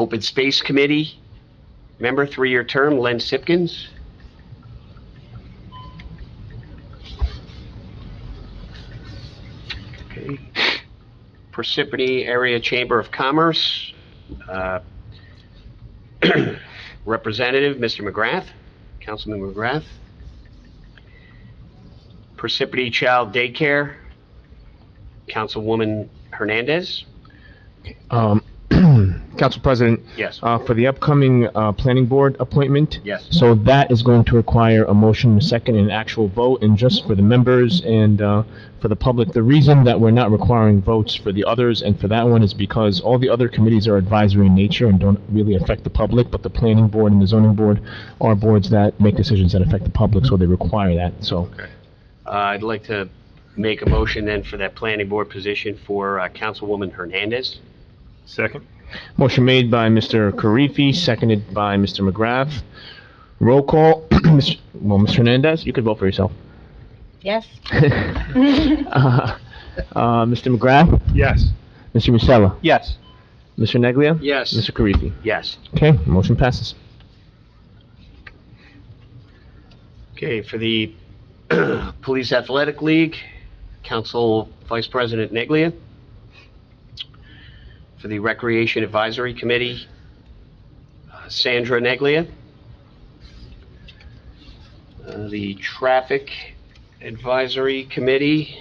Open Space Committee, member, three-year term, Len Sipkins. Okay. Parsippany Area Chamber of Commerce, uh, Representative, Mr. McGrath, Councilman McGrath. Parsippany Child Daycare, Councilwoman Hernandez. Um, Council President, Yes, uh, for the upcoming, uh, planning board appointment, yes. so that is going to require a motion, a second, and an actual vote, and just for the members and, uh, for the public, the reason that we're not requiring votes for the others and for that one is because all the other committees are advisory in nature and don't really affect the public, but the planning board and the zoning board are boards that make decisions that affect the public, so they require that, so. Uh, I'd like to make a motion then for that planning board position for uh, Councilwoman Hernandez. Second? Motion made by Mr. Karifi, seconded by Mr. McGrath. Roll call, Mr. well, Mr. Hernandez, you could vote for yourself. Yes. Uh, uh, Mr. McGrath, Yes. Mr. Musella, Yes. Mr. Neglia, Yes. Mr. Karifi. Yes. Okay, motion passes. Okay, for the Police Athletic League, Council Vice President Neglia. For the Recreation Advisory Committee, uh, Sandra Neglia. Uh, The Traffic Advisory Committee,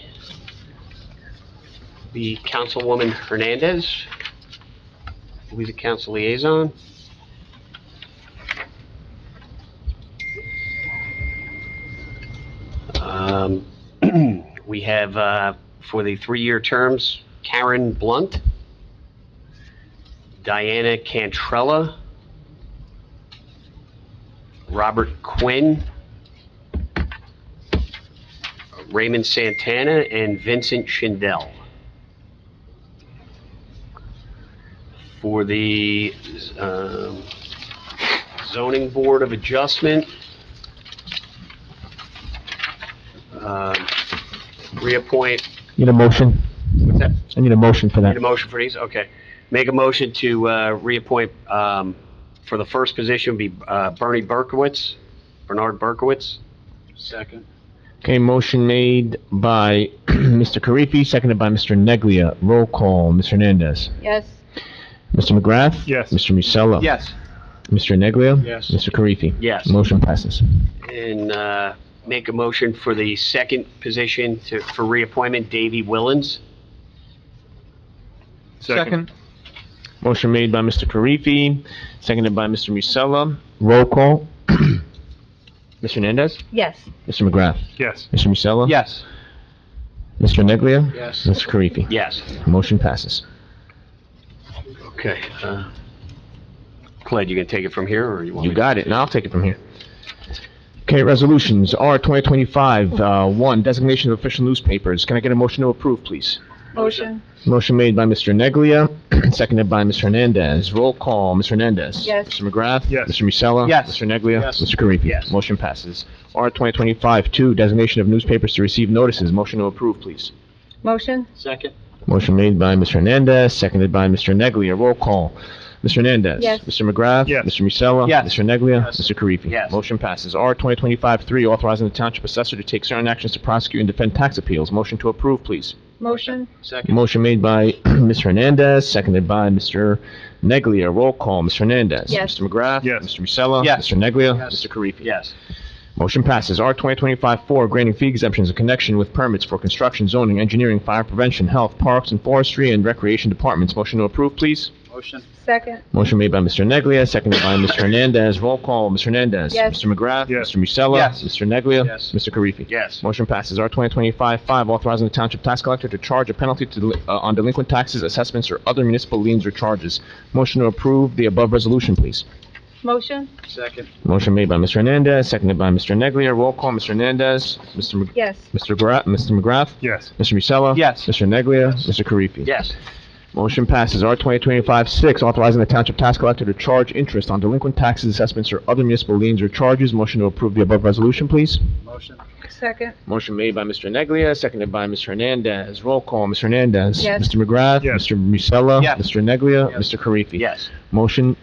the Councilwoman Hernandez, who is the council liaison. Um, We have, uh, for the three-year terms, Karen Blunt, Diana Cantrella, Robert Quinn, Raymond Santana, and Vincent Schindel. For the um, zoning board of adjustment, um, reappoint, Need a motion? what's that? I need a motion for Need that. a motion for these? Okay. Make a motion to uh, reappoint, um, for the first position would be uh, Bernie Berkowitz, Bernard Berkowitz. Second. Okay, motion made by Mr. Karifi, seconded by Mr. Neglia. Roll call, Mr. Hernandez. Yes. Mr. McGrath? Yes. Mr. Musella? Yes. Mr. Neglia? Yes. Mr. Karifi? Yes. Motion passes. And uh, make a motion for the second position to, for reappointment, Davy Willens. Second? Motion made by Mr. Karifi, seconded by Mr. Musella. Roll call. Mr. Hernandez? Yes. Mr. McGrath? Yes. Mr. Musella? Yes. Mr. Neglia? Yes. Mr. Karifi? Yes. Motion passes. Okay. uh, Clyde, you gonna take it from here, or you want me? You got it, now I'll take it from here. Okay, resolutions, R 2025, uh, 1, designation of official newspapers. Can I get a motion to approve, please? Motion. Motion made by Mr. Neglia, seconded by Mr. Hernandez. Roll call, Mr. Hernandez. Yes. Mr. McGrath. Yes. Mr. Musella. Yes. Mr. Neglia. Yes. Mr. Karifi. Yes. Motion passes. R 2025-2, designation of newspapers to receive notices. Motion to approve, please. Motion. Second. Motion made by Mr. Hernandez, seconded by Mr. Neglia. Roll call. Mr. Hernandez. Yes. Mr. McGrath. Yes. Mr. Musella. Yes. Mr. Neglia. Yes. Mr. Karifi. Yes. Motion passes. R 2025-3, authorizing the township assessor to take certain actions to prosecute and defend tax appeals. Motion to approve, please. Motion. Second. Motion made by Mr. Hernandez, seconded by Mr. Neglia. Roll call, Mr. Hernandez. Yes. Mr. McGrath. Yes. Mr. Musella. Yes. Mr. Neglia. Yes. Mr. Karifi. Yes. Motion passes. R 2025-4, granting fee exemptions in connection with permits for construction, zoning, engineering, fire prevention, health, parks, and forestry, and recreation departments. Motion to approve, please. Motion. Second. Motion made by Mr. Neglia, seconded by Mr. Hernandez. Roll call, Mr. Hernandez. Yes. Mr. McGrath. Yes. Mr. Musella. Yes. Mr. Neglia. Yes. Mr. Karifi. Yes. Motion passes. R 2025-5, authorizing the township tax collector to charge a penalty to, deli- uh, on delinquent taxes, assessments, or other municipal liens or charges. Motion to approve the above resolution, please. Motion. Second. Motion made by Mr. Hernandez, seconded by Mr. Neglia. Roll call, Mr. Hernandez, Mr. Mc- Yes. Mr. Gra, Mr. McGrath, Yes. Mr. Musella. Yes. Mr. Neglia, Mr. Karifi. Yes. Motion passes. R 2025-6, authorizing the township tax collector to charge interest on delinquent taxes, assessments, or other municipal liens or charges. Motion to approve the above resolution, please. Motion. Second. Motion made by Mr. Neglia, seconded by Mr. Hernandez. Roll call, Mr. Hernandez. Yes. Mr. McGrath. Yes. Mr. Musella. Yes. Mr. Neglia. Yes. Mr. Karifi. Yes. Motion